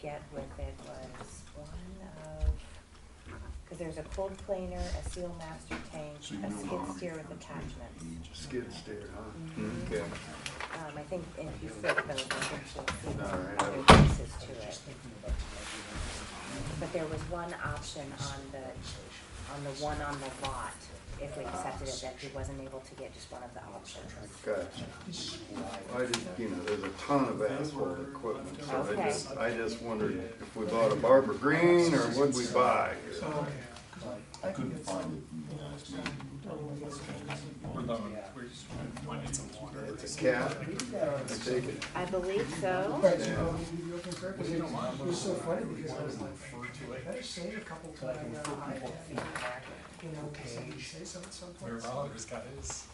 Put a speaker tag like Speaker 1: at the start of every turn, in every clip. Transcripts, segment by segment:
Speaker 1: get with it was one of, because there's a cold planer, a seal master tank,
Speaker 2: So you
Speaker 1: a
Speaker 2: no longer
Speaker 1: skid steer with
Speaker 2: count
Speaker 1: attachments.
Speaker 2: age.
Speaker 3: Skid steer, huh?
Speaker 1: Mhm.
Speaker 3: Okay.
Speaker 1: Um, I think if you flip those, I think you'll see
Speaker 3: All right.
Speaker 1: other pieces to it. But there was one option on the, on the one on the lot, if we accepted it, that he wasn't able to get just one of the options.
Speaker 3: Gotcha. I just, you know, there's a ton of asphalt equipment, so I
Speaker 1: Okay.
Speaker 3: just, I just wondered if we bought a Barbara Green or what'd we buy?
Speaker 2: I couldn't find it in the last meeting.
Speaker 3: It's a cat, I take it.
Speaker 1: I believe so.
Speaker 4: Because it it was so funny because I was like, I better say it a couple times. uh, I- You know, somebody say something
Speaker 5: Where
Speaker 4: someplace.
Speaker 5: Oliver's got his.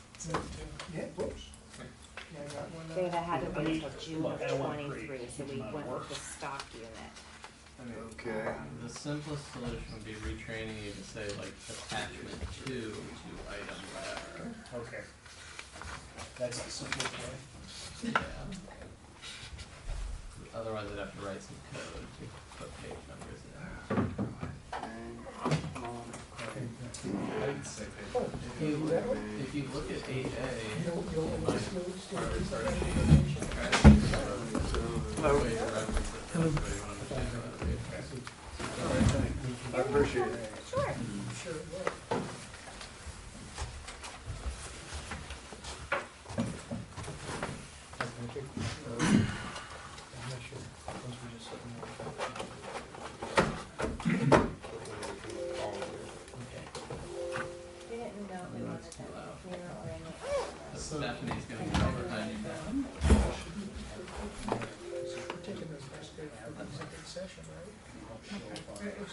Speaker 4: Yeah, whoops. Yeah, I got one. uh,
Speaker 1: Dave, I had to wait until June of twenty-three, so we went with the stock unit.
Speaker 3: Okay,
Speaker 6: The simplest solution would be retraining you to say like attachment two to item whatever.
Speaker 7: Okay. That's the simple way.
Speaker 6: Yeah. Otherwise, I'd have to write some code to put page numbers in.
Speaker 5: I'd say they-
Speaker 6: If you, if you look at eight
Speaker 4: You
Speaker 6: A,
Speaker 4: don't, you don't want to go
Speaker 6: or
Speaker 4: upstairs.
Speaker 6: sorry, the way you reference it, that's the way you want to understand about it.
Speaker 3: I appreciate it.
Speaker 1: Sure.
Speaker 4: Sure, yeah.
Speaker 1: We didn't know we wanted that mirror or any.
Speaker 6: So Stephanie's gonna come over behind you now.
Speaker 4: We're taking this first day for the second session, right?
Speaker 6: We'll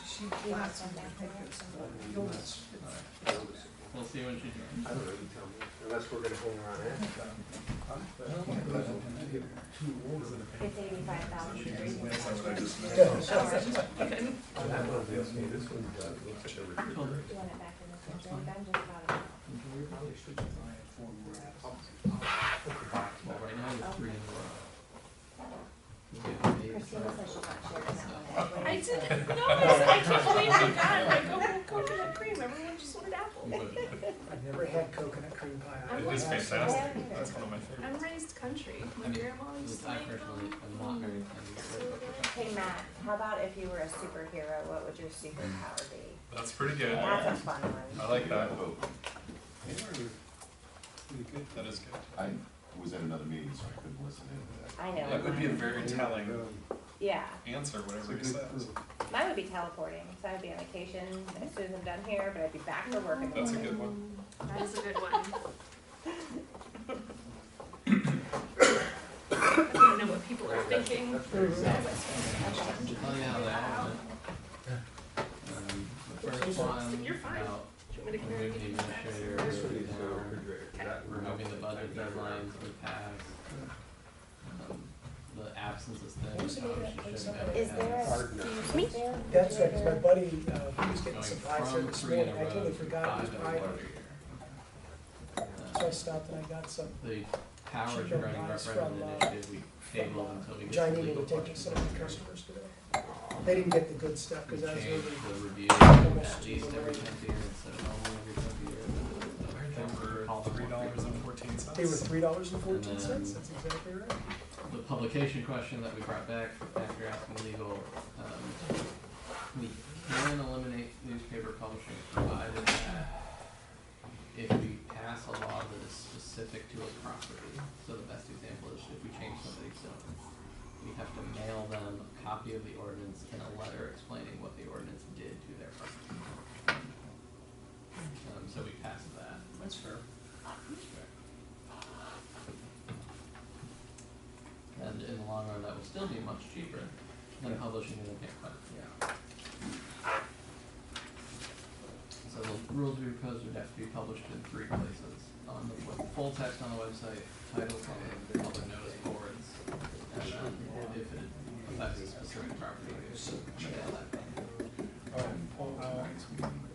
Speaker 6: see when she joins.
Speaker 3: Unless we're gonna hang around here.
Speaker 1: It's eighty-five thousand.
Speaker 6: Cool.
Speaker 1: You want it back in the center? I'm just about it.
Speaker 6: Well, right now, you're three in a row. You get eight,
Speaker 1: Christina
Speaker 6: so-
Speaker 1: says she's not sharing that one.
Speaker 8: I didn't, no, I, was- I can't believe you got like, oh, coconut cream, everyone just
Speaker 6: you
Speaker 8: wanted apple.
Speaker 6: would have.
Speaker 4: I've never had coconut cream pie.
Speaker 8: I'm
Speaker 5: It is
Speaker 4: Yeah.
Speaker 5: fantastic. That's one of my favorites.
Speaker 8: I'm raised country, my
Speaker 6: I mean,
Speaker 8: grandma used to
Speaker 6: I
Speaker 8: make
Speaker 6: personally
Speaker 8: them.
Speaker 6: am not very friendly.
Speaker 1: Hey, Matt, how about if you were a superhero, what would your superpower be?
Speaker 5: That's pretty good. I
Speaker 1: That's a fun one.
Speaker 5: like that. That is good.
Speaker 2: I was at another meeting, so I couldn't listen in to
Speaker 1: I know.
Speaker 5: That would be a
Speaker 1: mine-
Speaker 5: very telling
Speaker 1: Yeah,
Speaker 5: answer, whatever he says.
Speaker 1: mine would be teleporting, so I'd be on vacation as soon as I'm done here, but I'd be back for work in the
Speaker 5: That's a
Speaker 1: morning.
Speaker 5: good one.
Speaker 8: That is a good one. I don't know what people are thinking.
Speaker 6: Well, yeah, they all have it. Um, The first one,
Speaker 8: You're fine.
Speaker 6: about
Speaker 8: Do you want me to come here and
Speaker 6: removing
Speaker 8: get
Speaker 6: the
Speaker 8: you some snacks?
Speaker 6: administrator, um, removing the budget deadlines we passed. um, The absence of studies, obviously shouldn't have
Speaker 1: Is there
Speaker 6: passed.
Speaker 1: a, do you think there?
Speaker 4: That's right, 'cause my
Speaker 1: there-
Speaker 4: buddy, uh, he was getting
Speaker 6: Going
Speaker 4: some pies there
Speaker 6: from
Speaker 4: this
Speaker 6: three in
Speaker 4: morning,
Speaker 6: a
Speaker 4: I
Speaker 6: row
Speaker 4: totally
Speaker 6: to
Speaker 4: forgot
Speaker 6: five
Speaker 4: it
Speaker 6: in
Speaker 4: was
Speaker 6: a
Speaker 4: pie.
Speaker 6: water year.
Speaker 4: So I stopped and I got some.
Speaker 6: The power
Speaker 4: Should go
Speaker 6: regarding
Speaker 4: buy us from,
Speaker 6: referendum
Speaker 4: uh,
Speaker 6: initiative, we tabled until we get
Speaker 4: John,
Speaker 6: the
Speaker 4: you need
Speaker 6: legal
Speaker 4: to take
Speaker 6: questions.
Speaker 4: some of the customers today. They didn't get the good stuff,
Speaker 6: We
Speaker 4: because I was
Speaker 6: changed
Speaker 4: really.
Speaker 6: the review
Speaker 4: much
Speaker 6: at least
Speaker 4: cheaper
Speaker 6: every
Speaker 4: rate.
Speaker 6: tenth year instead of only every tenth year. So every
Speaker 5: They
Speaker 6: tenth year,
Speaker 5: were
Speaker 6: call them
Speaker 5: three
Speaker 6: more
Speaker 5: dollars and
Speaker 6: frequently.
Speaker 5: fourteen cents.
Speaker 4: They were three dollars and fourteen cents, that's exactly right.
Speaker 6: The publication question that we brought back after asking legal, um, we can eliminate newspaper publishing provided that if we pass a law that is specific to a property. So the best example is if we change somebody's zone, we have to mail them a copy of the ordinance and a letter explaining what the ordinance did to their property. Um, so we passed that.
Speaker 7: That's fair.
Speaker 6: And in the long run, that will still be much cheaper than publishing in a pamphlet. Yeah. So the rules we proposed would have to be published in three places, on the web- full text on the website, titles on the public notice boards, and then if it affects a specific property, we would mail that.
Speaker 7: All right, well, uh,
Speaker 2: the next meeting.